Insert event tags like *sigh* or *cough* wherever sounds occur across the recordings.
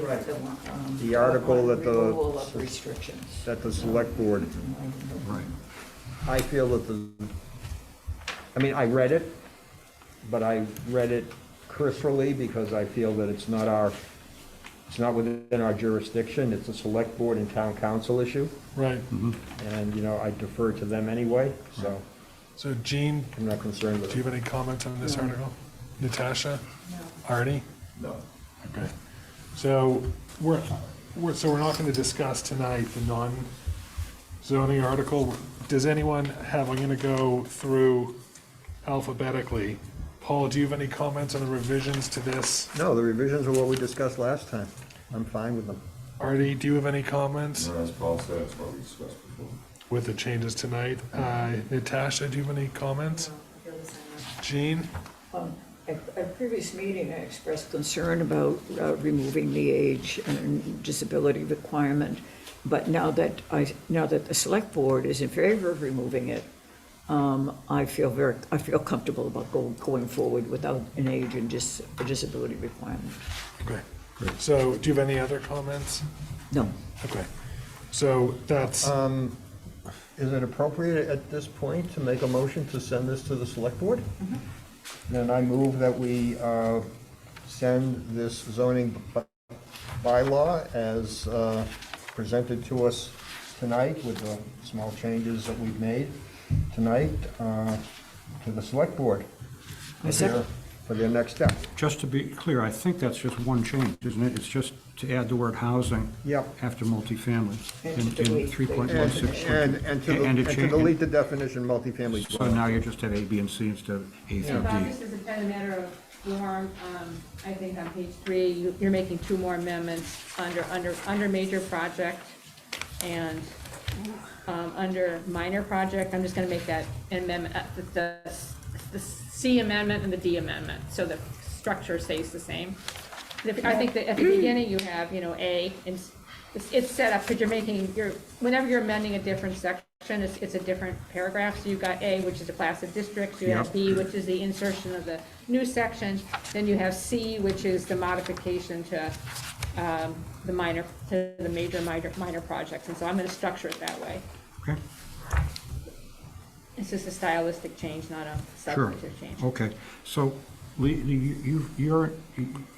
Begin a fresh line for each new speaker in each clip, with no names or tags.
Right.
um,
The article that the-
Removal of restrictions.
that the select board,
Right.
I feel that the, I mean, I read it, but I read it cursorily because I feel that it's not our, it's not within our jurisdiction. It's a select board and town council issue,
Right,
and, you know, I defer to them anyway, so
so Jean,
I'm not concerned with
do you
it.
have any comments on this
No.
article? Natasha,
No.
Artie?
No.
Okay. So we're, we're, so we're not going to discuss tonight the non-zoning article. Does anyone have, I'm going to go through alphabetically. Paul, do you have any comments on the revisions to this?
No, the revisions are what we discussed last time. I'm fine with them.
Artie, do you have any comments
As Paul said, it's what we discussed before.
with the changes tonight? Uh, Natasha, do you have any comments? Jean?
Um, At at a previous meeting, I expressed concern about uh, removing the age and disability requirement, but now that I, now that the select board is in favor of removing it, um, I feel very, I feel comfortable about go- going forward without an age and dis- disability requirement.
Okay. So do you have any other comments?
No.
Okay. So that's,
Um, Is it appropriate at this point to make a motion to send this to the select board? Then I move that we uh, send this zoning by- bylaw as uh, presented to us tonight with the small changes that we've made tonight uh, to the select board.
I
for their-
second.
For their next step.
Just to be clear, I think that's just one change, isn't it? It's just to add the word housing.
Yep.
After multifamily
And to
in- in
delete the-
three point one
And,
six.
and and to and to delete the definition multifamily.
So now you just have A, B, and C instead of A
Yeah.
through
Bob,
D.
this is a kind of matter of form, um, I think on page three, you- you're making two more amendments under, under, under major project and, um, under minor project, I'm just gonna make that amendment, uh, the- the, the C amendment and the D amendment, so the structure stays the same. If- I think that at the beginning, you have, you know, A, and it's, it's set up, because you're making, you're, whenever you're amending a different section, it's, it's a different paragraph, so you've got A, which is the class of districts, you have
Yep.
B, which is the insertion of the new section, then you have C, which is the modification to, um, the minor, to the major, minor, minor projects, and so I'm gonna structure it that way.
Okay,
It's just a stylistic change, not a
sure. Oh,
substantive change.
Okay, so Lee, Lee, you, you're,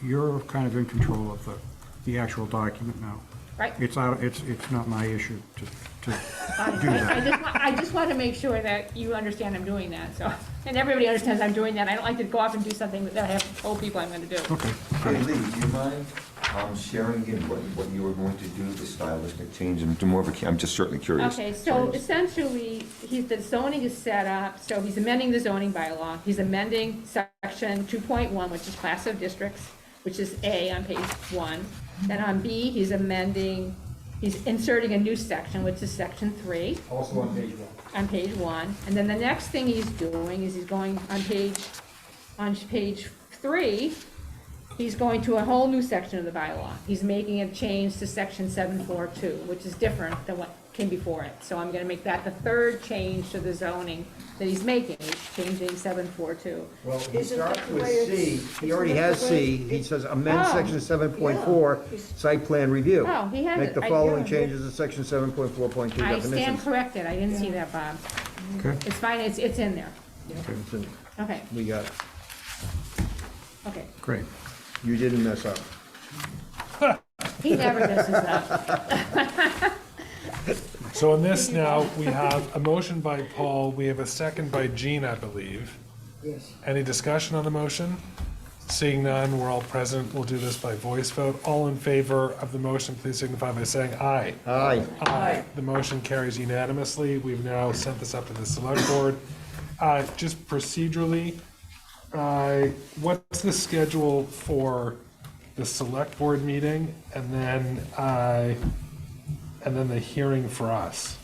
you're kind of in control of the, the actual document now.
Right.
It's out, it's, it's not my issue to, to
I- I I just, wa- I just want to make sure that you understand I'm doing that, so, *laughs* and everybody understands I'm doing that. I don't like to go off and do something that I have to tell people I'm going to do.
Okay,
Hey, Lee, do you mind um, sharing again what, what you were going to do, the stylistic change, and do more of a, I'm just certainly curious.
Okay, so essentially, he's, the zoning is set up, so he's amending the zoning bylaw. He's amending section 2.1, which is class of districts, which is A on page one. Then on B, he's amending, he's inserting a new section, which is section three.
Also on page one.
on page one, and then the next thing he's doing is he's going on page, on page three, he's going to a whole new section of the bylaw. He's making a change to section seven four two, which is different than what came before it. So I'm gonna make that the third change to the zoning that he's making, is changing seven four two.
Well, he
Isn't that
starts
the
with
way
C,
it's-
he
isn't
already
that
has
the way
C, he
it-
says amend
Oh,
section seven point four,
yeah.
site plan review.
Oh, he has
Make
it.
the
I-
following
yeah.
changes to section seven point four point two
I stand
definitions.
corrected, I didn't see that, Bob.
okay.
It's fine, it's, it's in there.
It's in-
Okay,
We got, it.
okay.
Great.
you didn't mess up.
He never messes up.
so on this now, we have a motion by Paul, we have a second by Jean, I believe.
Yes.
Any discussion on the motion? Seeing none, we're all present, we'll do this by voice vote. All in favor of the motion, please signify by saying aye.
Aye,
Aye. The motion carries unanimously. We've now sent this up to the select board. Uh, Just procedurally, uh, what's the schedule for the select board meeting and then, uh, and then the hearing for us?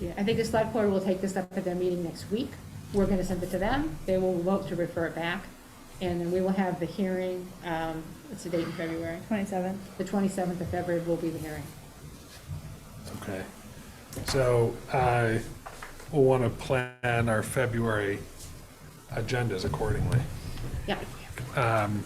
Yeah, I think the select board will take this up at their meeting next week. We're gonna send it to them, they will vote to refer it back, and then we will have the hearing, um, what's the date in February?
Twenty-seven.
The twenty-seventh of February will be the hearing.
Okay. So I will want to plan our February agendas accordingly.
Yeah,
Um,